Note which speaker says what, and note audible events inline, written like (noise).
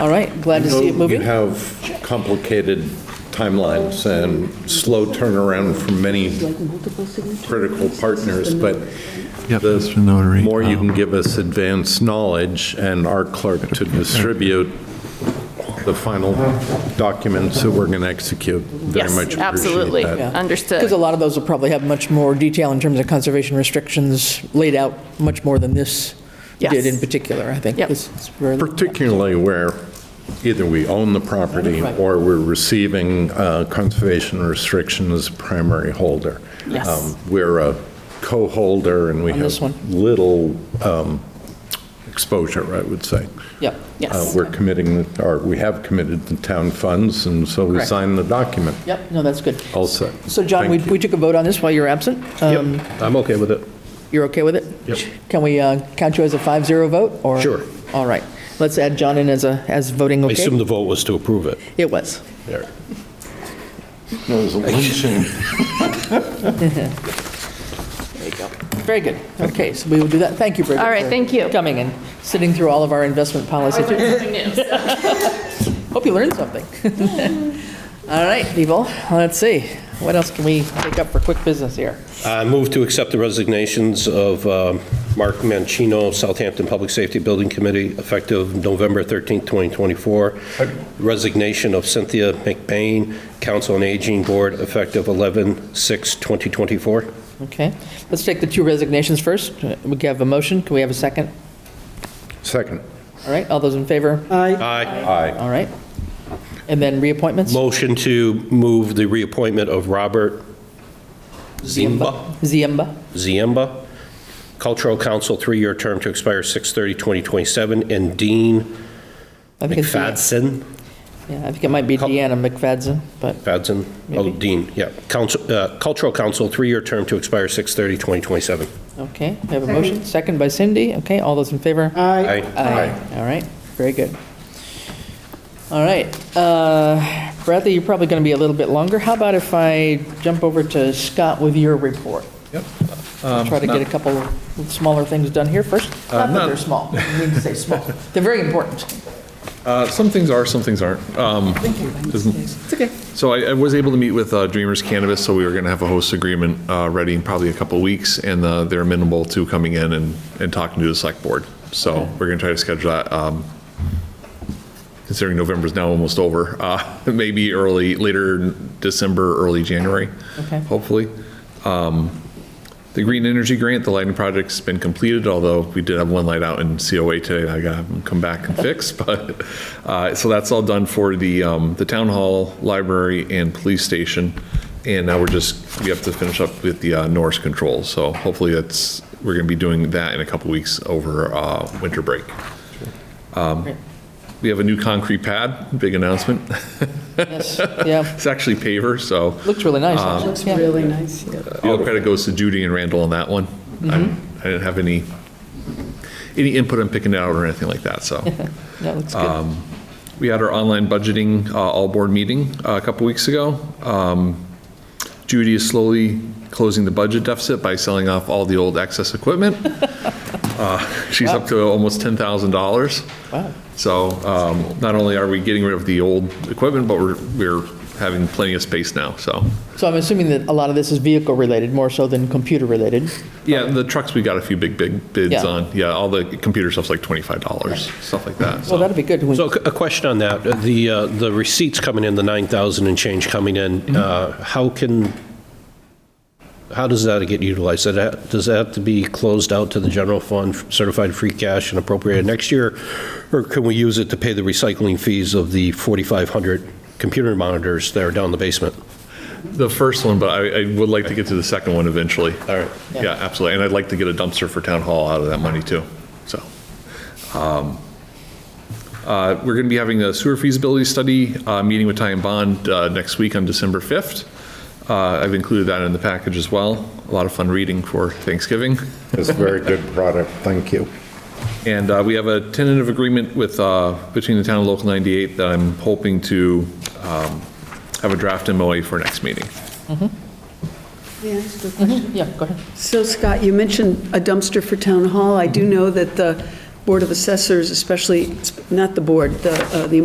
Speaker 1: All right, glad to see it
Speaker 2: You
Speaker 1: moving.
Speaker 2: have complicated timelines and slow turnaround for many critical partners, but
Speaker 3: Yep, Mr.
Speaker 2: the
Speaker 3: Notary.
Speaker 2: more you
Speaker 3: uh,
Speaker 2: can give us advance knowledge and our clerk to distribute the final documents that we're going to execute, very
Speaker 4: Yes,
Speaker 2: much appreciate that. Uh,
Speaker 4: absolutely. Understood.
Speaker 1: Because a lot of those will probably have much more detail in terms of conservation restrictions laid out, much more than this did
Speaker 4: Yes.
Speaker 1: in particular, I think.
Speaker 4: Yep.
Speaker 1: It's- it's very-
Speaker 2: Particularly where either we own the property
Speaker 1: Right.
Speaker 2: or we're receiving uh, conservation restriction as primary holder.
Speaker 4: Yes.
Speaker 2: Um, We're a co-holder and we
Speaker 1: On this one.
Speaker 2: have little um, exposure, I would say.
Speaker 1: Yep.
Speaker 2: Uh,
Speaker 4: Yes.
Speaker 2: We're committing, the- or we have committed the town funds and so we
Speaker 1: Correct.
Speaker 2: sign the document.
Speaker 1: Yep, no, that's good.
Speaker 2: All set.
Speaker 1: So John, we
Speaker 2: Thank you.
Speaker 1: we took a vote on this while you were absent. Um,
Speaker 5: I'm okay with it.
Speaker 1: You're okay with it?
Speaker 5: Yep.
Speaker 1: Can we uh, count you as a 5-0 vote, or?
Speaker 5: Sure.
Speaker 1: All right. Let's add John in as a, as voting
Speaker 5: I
Speaker 1: okay.
Speaker 5: assume the vote was to approve it.
Speaker 1: It was.
Speaker 5: There. (laughs)
Speaker 1: There you go. Very good. Okay, so we will do that. Thank you, Bridget.
Speaker 4: All right,
Speaker 1: for
Speaker 4: thank you.
Speaker 1: Coming and sitting through all of our investment policy. Hope you learned something. (laughs) All right, people, let's see. What else can we take up for quick business here?
Speaker 5: I Uh, move to accept the resignations of um, Mark Mancino, Southampton Public Safety Building Committee, effective November 13th, 2024. Resignation of Cynthia McBain, Council on Aging Board, effective 11/6/2024.
Speaker 1: Okay, let's take the two resignations first. We have a motion. Can we have a second?
Speaker 2: Second.
Speaker 1: All right, all those in favor?
Speaker 5: Aye.
Speaker 2: Aye.
Speaker 1: All right. And then reappointments?
Speaker 5: Motion to move the reappointment of Robert Zimba.
Speaker 1: Ziemba.
Speaker 5: Ziemba, Cultural Council, three-year term to expire 6/30/2027, and Dean
Speaker 1: I think it's Deanna.
Speaker 5: McFadden,
Speaker 1: Yeah, I think it might be
Speaker 5: Cul-
Speaker 1: Deanna McFadden, but,
Speaker 5: Fadzen, oh,
Speaker 1: Maybe.
Speaker 5: Dean, yeah, Council, uh, Cultural Council, three-year term to expire 6/30/2027.
Speaker 1: okay. We have a motion, second by Cindy. Okay, all those in favor?
Speaker 5: Aye.
Speaker 1: Aye. All right, very good. All right, uh, Bradley, you're probably going to be a little bit longer. How about if I jump over to Scott with your report?
Speaker 6: Yep.
Speaker 1: Try to get a couple of smaller things done here first. Not that
Speaker 6: not-
Speaker 1: they're small, I need to say small. They're very important.
Speaker 6: Uh, Some things are, some things aren't. Um, isn't-
Speaker 1: It's okay.
Speaker 6: So I I was able to meet with uh, Dreamers Cannabis, so we were going to have a host agreement uh, ready in probably a couple of weeks, and uh, they're amenable to coming in and and talking to the select board. So we're going to try to schedule that, um, considering November's now almost over, uh, (laughs) maybe early, later December, early January,
Speaker 1: Okay.
Speaker 6: hopefully. The green energy grant, the lighting project's been completed, although we did have one light out in COA today. that I gotta have them come back and fix, (laughs) but, uh, so that's all done for the, um, the town hall, library and police station. And now we're just, we have to finish up with the, uh, Norse control. So hopefully that's, we're gonna be doing that in a couple weeks over, uh, winter break. Um,
Speaker 1: Great.
Speaker 6: We have a new concrete pad, big announcement. (laughs)
Speaker 1: Yes, yeah,
Speaker 6: It's actually paver, so.
Speaker 1: looks really nice, actually.
Speaker 7: Looks
Speaker 1: Yeah.
Speaker 7: really nice, yeah.
Speaker 6: All credit goes to Judy and Randall on that one. I'm- I didn't have any, any input on picking it out or anything like that, so.
Speaker 1: That looks good.
Speaker 6: We had our online budgeting uh, all-board meeting uh, a couple weeks ago. Um, Judy is slowly closing the budget deficit by selling off all the old excess equipment. Uh, She's up to almost $10,000.
Speaker 1: Wow.
Speaker 6: So um, not only are we getting rid of the old equipment, but we're, we're having plenty of space now, so.
Speaker 1: So I'm assuming that a lot of this is vehicle-related, more so than computer-related.
Speaker 6: Yeah, the trucks, we got a few big, big bids
Speaker 1: Yeah.
Speaker 6: on. Yeah, all the computer stuff's like $25, stuff like that.
Speaker 1: Well,
Speaker 6: So
Speaker 1: that'd be good. when-
Speaker 5: So a question on that, the, uh, the receipts coming in, the 9,000 and change coming in, uh, how can, how does that get utilized? Does that- Does that have to be closed out to the general fund, certified free cash and appropriated next year? Or can we use it to pay the recycling fees of the 4,500 computer monitors that are down in the basement?
Speaker 6: the first one, but I, I would like to get to the second one eventually.
Speaker 5: All right.
Speaker 1: Yeah.
Speaker 6: Yeah, absolutely. And I'd like to get a dumpster for town hall out of that money too, so. um, Uh, We're going to be having a sewer feasibility study, uh, meeting with Ty and Bond uh, next week on December 5th. Uh, I've included that in the package as well. A lot of fun reading for Thanksgiving.
Speaker 2: It's a very good product. Thank you.
Speaker 6: And uh, we have a tentative agreement with, uh, between the town and Local 98 that I'm hoping to um, have a draft MOA for next meeting.
Speaker 7: May I ask a question?
Speaker 1: Yeah, go ahead.
Speaker 7: So Scott, you mentioned a dumpster for Town Hall. I do know that the Board of Assessors, especially, not the board, the, uh, the